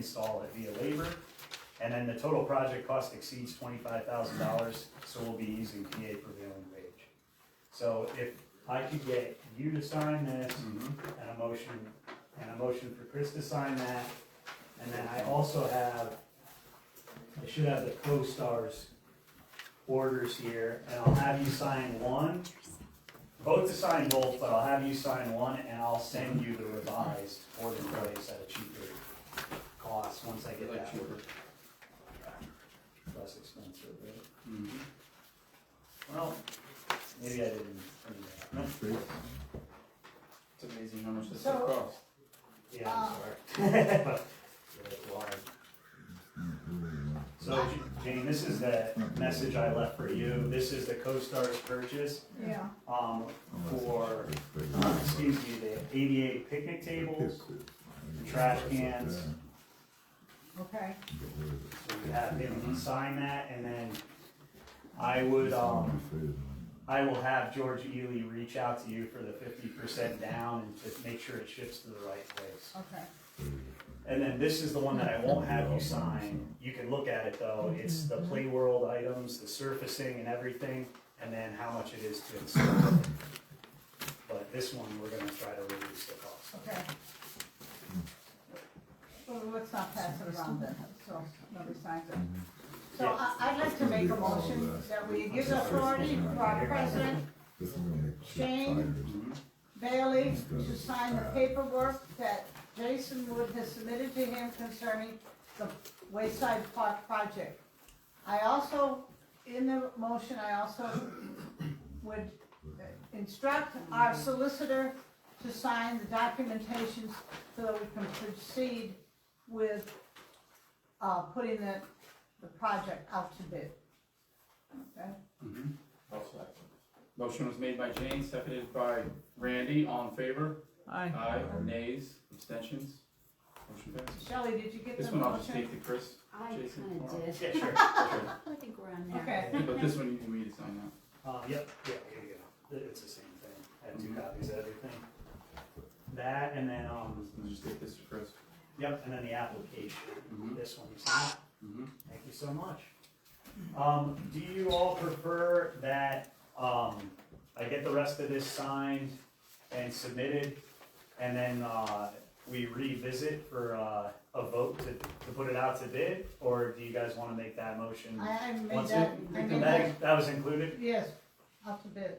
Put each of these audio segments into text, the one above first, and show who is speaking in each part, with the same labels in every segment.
Speaker 1: install it via labor. And then the total project cost exceeds twenty-five thousand dollars, so we'll be using PA prevailing wage. So if I could get you to sign this
Speaker 2: Mm-hmm.
Speaker 1: and a motion, and a motion for Chris to sign that, and then I also have, I should have the co-stars orders here, and I'll have you sign one. Vote to sign both, but I'll have you sign one, and I'll send you the revised order price at a cheaper cost, once I get that order. Less expensive, right?
Speaker 2: Mm-hmm.
Speaker 1: Well, maybe I didn't. bring that up.
Speaker 2: It's amazing how much this
Speaker 3: So-
Speaker 2: stuff costs.
Speaker 1: Yeah, I'm
Speaker 3: Uh.
Speaker 1: sorry. But, yeah, it's wild. So, J- Jane, this is the message I left for you. This is the CoStar's purchase,
Speaker 3: Yeah,
Speaker 1: um, for, uh, excuse me, the eighty-eight picnic tables. trash cans.
Speaker 3: okay.
Speaker 1: So you have him sign that, and then I would, um, I will have George Ely reach out to you for the fifty percent down and to make sure it ships to the right place.
Speaker 3: Okay.
Speaker 1: And then this is the one that I won't have you sign. You can look at it though. It's the play world items, the surfacing and everything, and then how much it is to install. But this one, we're gonna try to reduce the cost.
Speaker 3: Okay. Well, let's not pass it around then, so nobody signs it. So I, I'd like to make a motion that we give authority for our president Bailey to sign the paperwork that Jason Wood has submitted to him concerning the Wayside Park project. I also, in the motion, I also would instruct our solicitor to sign the documentations so that we can proceed with, uh, putting the, the project out to bid. Okay?
Speaker 2: Motion was made by Jane, seconded by Randy, all in favor?
Speaker 4: Aye.
Speaker 2: Aye, nays, abstentions? Motion passes.
Speaker 3: Shelley, did you get the motion?
Speaker 2: This one I'll just take to Chris,
Speaker 5: I
Speaker 2: Jason,
Speaker 5: kinda
Speaker 2: tomorrow.
Speaker 5: did.
Speaker 1: Yeah, sure.
Speaker 2: Sure.
Speaker 5: I think we're on there.
Speaker 3: Okay.
Speaker 2: but this one you need me to sign now.
Speaker 1: Uh, yep, yeah, here you go. It- It's the same thing. I have two copies of everything. That and then, um,
Speaker 2: I'll just take this to Chris.
Speaker 1: yep, and then the application.
Speaker 2: Mhm.
Speaker 1: This one, you sign it.
Speaker 2: Mm-hmm.
Speaker 1: Thank you so much. Um, do you all prefer that, um, I get the rest of this signed and submitted? And then, uh, we revisit for, uh, a vote to, to put it out to bid? Or do you guys wanna make that motion?
Speaker 3: I, I made
Speaker 1: Once
Speaker 3: that,
Speaker 1: it-
Speaker 3: I
Speaker 1: That-
Speaker 3: made that,
Speaker 1: That was included?
Speaker 3: yes, out to bid,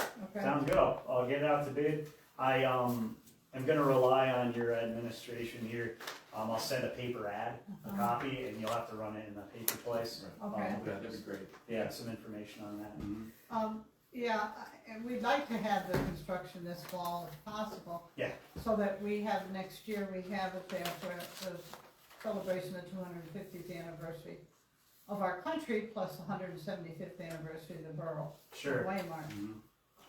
Speaker 3: okay?
Speaker 1: Sounds good, I'll, I'll get it out to bid. I, um, am gonna rely on your administration here. Um, I'll send a paper ad, a copy, and you'll have to run it in the paper place. Um,
Speaker 3: Okay.
Speaker 2: Yeah, that'd be great. Mm-hmm.
Speaker 1: Yeah, some information on that.
Speaker 3: Um, yeah, I- and we'd like to have the construction this fall if possible.
Speaker 1: Yeah.
Speaker 3: So that we have, next year, we have it there for the celebration of two hundred and fiftieth anniversary of our country, plus the hundred and seventy-fifth anniversary of the borough,
Speaker 1: Sure.
Speaker 3: Waymark.
Speaker 2: Mhm.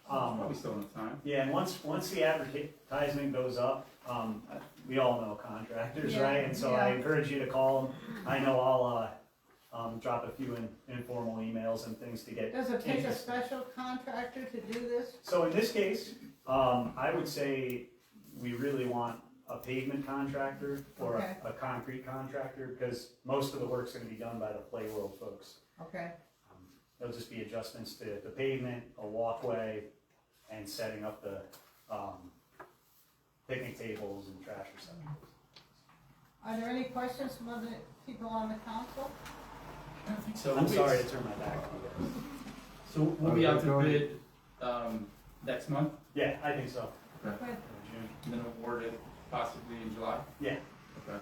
Speaker 1: Um,
Speaker 2: Probably still in time.
Speaker 1: yeah, and once, once the advertisement goes up, um, we all know contractors,
Speaker 3: Yeah,
Speaker 1: right? And so I
Speaker 3: yeah.
Speaker 1: encourage you to call them. I know I'll, uh, um, drop a few in, informal emails and things to get
Speaker 3: Does it take a
Speaker 1: Interesting.
Speaker 3: special contractor to do this?
Speaker 1: So in this case, um, I would say we really want a pavement contractor or
Speaker 3: Okay.
Speaker 1: a, a concrete contractor, because most of the work's gonna be done by the Play World folks.
Speaker 3: Okay,
Speaker 1: It'll Um, just be adjustments to the pavement, a walkway, and setting up the, um, picnic tables and trash receptacles.
Speaker 3: are there any questions from other people on the council?
Speaker 2: So
Speaker 1: I'm
Speaker 2: we-
Speaker 1: sorry to turn my back on you guys.
Speaker 2: So we'll be out to bid, um, next month,
Speaker 1: Yeah, I think so.
Speaker 3: Good.
Speaker 1: June.
Speaker 2: and then award it possibly in July?
Speaker 1: Yeah.
Speaker 2: Okay.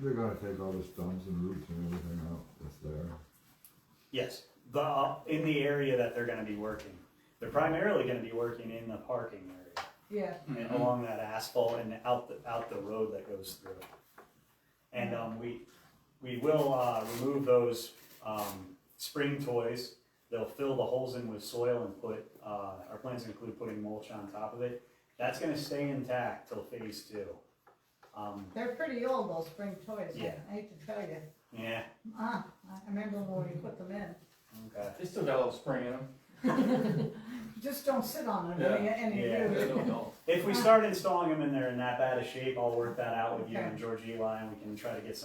Speaker 4: They're gonna take all the stumps and roots and everything out that's there.
Speaker 1: Yes, the, uh, in the area that they're gonna be working. They're primarily gonna be working in the parking area.
Speaker 3: Yeah,
Speaker 1: and
Speaker 2: Mhm.
Speaker 1: along that asphalt and out the, out the road that goes through. And, um, we, we will, uh, remove those, um, spring toys. They'll fill the holes in with soil and put, uh, our plans include putting mulch on top of it. That's gonna stay intact till phase two. Um,
Speaker 3: they're pretty old, those spring toys,
Speaker 1: Yeah.
Speaker 3: I hate to tell you.
Speaker 1: yeah,
Speaker 3: Ah, I remember when we put them in.
Speaker 1: okay.
Speaker 2: They still got a little spring in them.
Speaker 3: Just don't sit on it, any, any
Speaker 2: I
Speaker 3: of you.
Speaker 2: don't know.
Speaker 1: If we start installing them and they're in that bad a shape, I'll work that out with you
Speaker 3: Okay.
Speaker 1: and George Eli, and we can try to get some